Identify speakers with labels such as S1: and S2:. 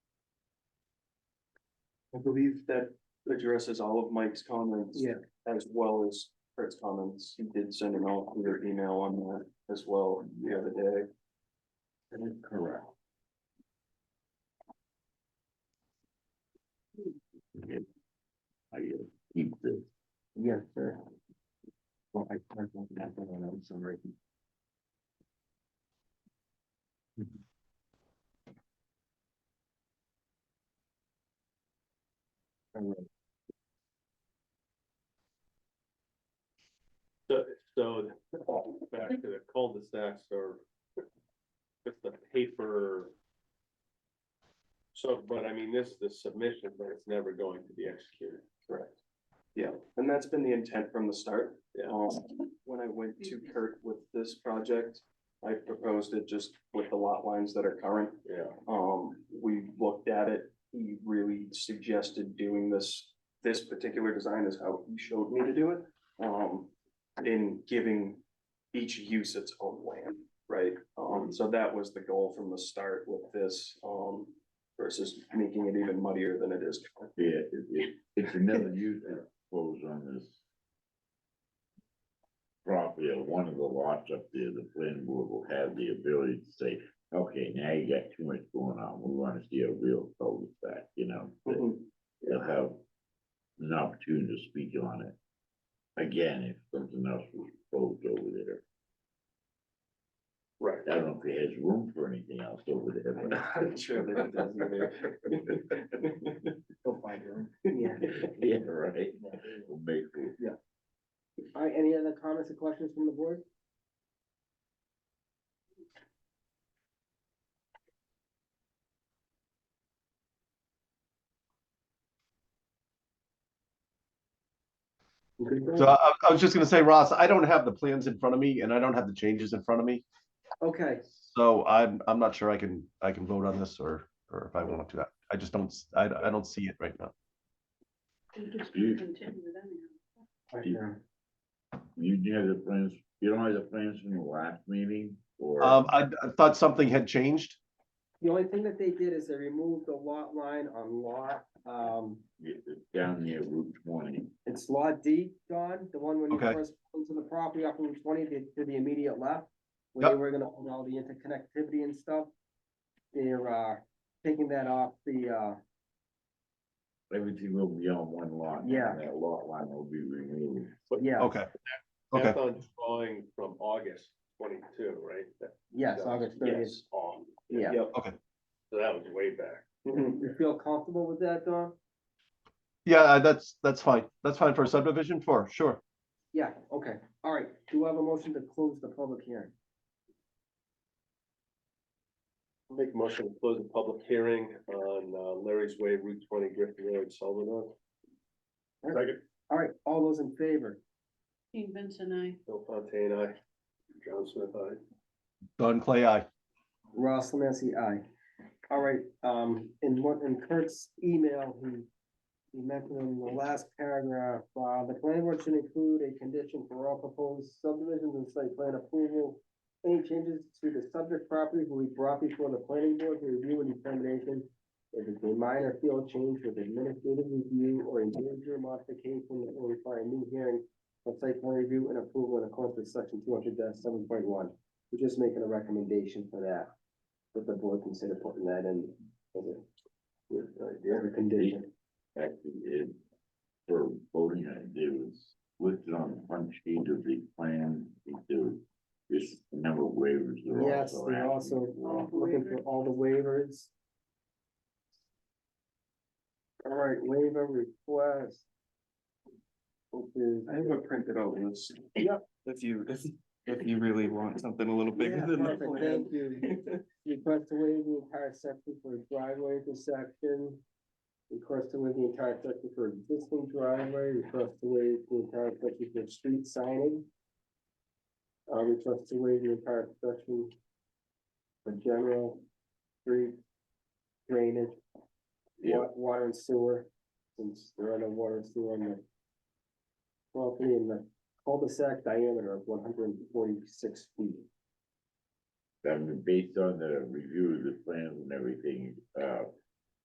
S1: I believe that addresses all of Mike's comments.
S2: Yeah.
S1: As well as Kurt's comments. He did send an all clear email on that as well the other day.
S2: Correct. I uh, keep this. Yes, sir. Well, I can't, I'm sorry.
S3: So, so back to the cul-de-sacs or just the paper. So, but I mean, this is the submission, but it's never going to be executed.
S1: Correct. Yeah, and that's been the intent from the start.
S3: Yeah.
S1: Um, when I went to Kurt with this project, I proposed it just with the lot lines that are current.
S3: Yeah.
S1: Um, we looked at it, he really suggested doing this, this particular design is how he showed me to do it. Um, in giving each use its own land, right?
S3: Mm-hmm.
S1: Um, so that was the goal from the start with this, um, versus making it even muddier than it is.
S4: Yeah, it, it, it's another use that goes on this. Property or one of the lots up there, the planning board will have the ability to say, okay, now you got too much going on, we wanna see a real cul-de-sac, you know? that
S3: Mm-hmm.
S1: Mhm.
S4: They'll have an opportunity to speak on it. Again, if something else was proposed over there,
S3: Right.
S4: I don't know if it has room for anything else over there,
S1: I'm
S4: but.
S1: not sure that it does either.
S2: Go find your own.
S1: Yeah.
S4: Yeah, right, We'll make it.
S2: All right, any other comments or questions from the board? Okay,
S5: So I, I was just gonna say, Ross, I don't have the plans in front of me and I don't have the changes in front of me.
S2: Okay,
S5: So I'm, I'm not sure I can, I can vote on this or, or if I want to. I just don't, s- I, I don't see it right now.
S4: You-
S2: Right now.
S4: You do have the plans, you don't have the plans from the last meeting or?
S5: Um, I, I thought something had changed.
S2: the only thing that they did is they removed the lot line on lot, um,
S4: It- it's Down near Route twenty.
S2: it's lot D, Don, the one when you
S5: Okay.
S2: first pulled into the property off Route twenty, to, to the immediate left. Where they
S5: Yep.
S2: were gonna own all the interconnectivity and stuff. They're, uh, taking that off the, uh,
S4: Everything will be on one lot. and
S2: Yeah.
S4: That lot line will be removed.
S2: yeah,
S5: Okay. Okay,
S3: That's on drawing from August twenty-two, right? That-
S2: yes,
S3: that's-
S2: August thirtieth,
S3: yes, on.
S2: yeah. Mm-hmm.
S1: Yep.
S3: So that was way back.
S1: Mhm.
S2: You feel comfortable with that, Don?
S5: yeah, that's, that's fine. That's fine for a subdivision for, sure.
S2: Yeah, okay, all right, do I have a motion to close the public hearing?
S3: Make a motion to close the public hearing on uh, Larry's Way, Route twenty, Griffin Road, Sullivan. Second.
S2: All right, all those in favor?
S6: King Vincent, I.
S3: Bill Fontaine, aye. John Smith, aye.
S5: Don Clay, I.
S2: Ross Lemansky, aye. All right, um, in one, in Kurt's email, he, he mentioned in the last paragraph, uh, the planning board should include a condition for all proposed subdivisions and site plan approval. Any changes to the subject properties will be brought before the planning board for review and determination. If it's a minor field change with administrative review or a major modification that will require a new hearing of site plan review and approval in accordance with section two hundred seven point one. We're just making a recommendation for that that the board consider putting that in as a, with, uh, the other condition.
S4: Actually, it, for voting, it it was listed on the front sheet of the plan. It- There was this number of waivers. they're
S2: Yes,
S4: also
S2: we're
S4: asking
S2: also
S4: for.
S2: looking for all the waivers. All right, waiver request. Which is-
S1: I have a printed out list.
S2: Yep.
S1: If you, if, if you really want something a little
S2: Yeah,
S1: bigger than the
S2: perfect,
S1: plan.
S2: Thank you. Request to waive the entire section for driveway intersection. Request to waive the entire section for existing driveway, request to waive the entire section for street signing. Uh, request to waive the entire section for general street drainage,
S4: Yeah,
S2: wa- water and sewer, since there are no water and sewer on the property and the cul-de-sac diameter of one hundred and forty-six feet.
S4: I mean, based on the review of the plans and everything, uh,